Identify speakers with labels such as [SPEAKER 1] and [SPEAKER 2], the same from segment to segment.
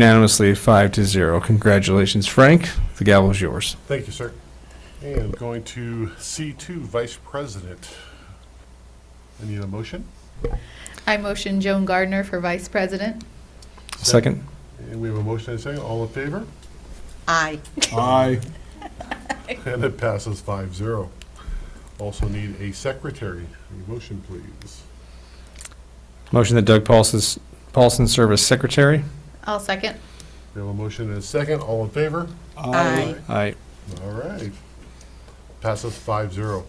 [SPEAKER 1] Unanimously, five to zero. Congratulations, Frank. The gavel's yours.
[SPEAKER 2] Thank you, sir. And going to C2, Vice President. I need a motion.
[SPEAKER 3] I motion Joan Gardner for vice president.
[SPEAKER 1] Second?
[SPEAKER 2] And we have a motion and a second. All in favor?
[SPEAKER 4] Aye.
[SPEAKER 5] Aye.
[SPEAKER 2] And it passes 5-0. Also need a secretary. A motion, please.
[SPEAKER 1] Motion that Doug Paulson, Paulson serve as secretary?
[SPEAKER 3] I'll second.
[SPEAKER 2] We have a motion and a second. All in favor?
[SPEAKER 4] Aye.
[SPEAKER 1] Aye.
[SPEAKER 2] All right. Passes 5-0.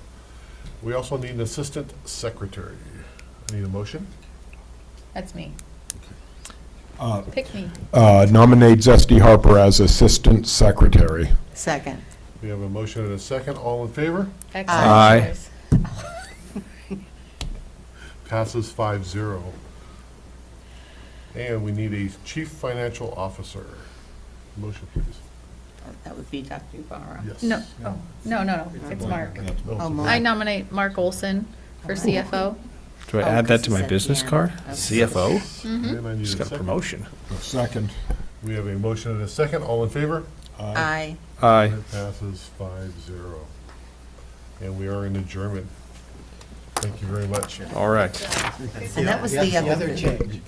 [SPEAKER 2] We also need an assistant secretary. I need a motion.
[SPEAKER 3] That's me.
[SPEAKER 5] Uh,
[SPEAKER 3] Pick me.
[SPEAKER 5] Uh, Nominate Zesty Harper as Assistant Secretary.
[SPEAKER 4] Second.
[SPEAKER 2] We have a motion and a second. All in favor?
[SPEAKER 1] Aye.
[SPEAKER 3] Excellent.
[SPEAKER 2] Passes 5-0. And we need a chief financial officer. Motion, please.
[SPEAKER 4] That would be Dr. Yubara.
[SPEAKER 2] Yes.
[SPEAKER 3] No, oh, no, no, no, it's Mark.
[SPEAKER 4] Oh,
[SPEAKER 3] I
[SPEAKER 4] Mark.
[SPEAKER 3] nominate Mark Olson for CFO.
[SPEAKER 1] Do I
[SPEAKER 4] Oh,
[SPEAKER 1] add that to my
[SPEAKER 4] 'cause it's at the
[SPEAKER 1] business
[SPEAKER 4] end.
[SPEAKER 1] card?
[SPEAKER 4] Okay.
[SPEAKER 1] CFO?
[SPEAKER 2] And I need
[SPEAKER 1] Just
[SPEAKER 2] a
[SPEAKER 1] got a
[SPEAKER 2] second.
[SPEAKER 1] promotion.
[SPEAKER 5] Second.
[SPEAKER 2] We have a motion and a second. All in favor?
[SPEAKER 4] Aye.
[SPEAKER 1] Aye.
[SPEAKER 2] It passes 5-0. And we are in adjournment. Thank you very much.
[SPEAKER 1] All right.
[SPEAKER 4] And that was the other.
[SPEAKER 6] change.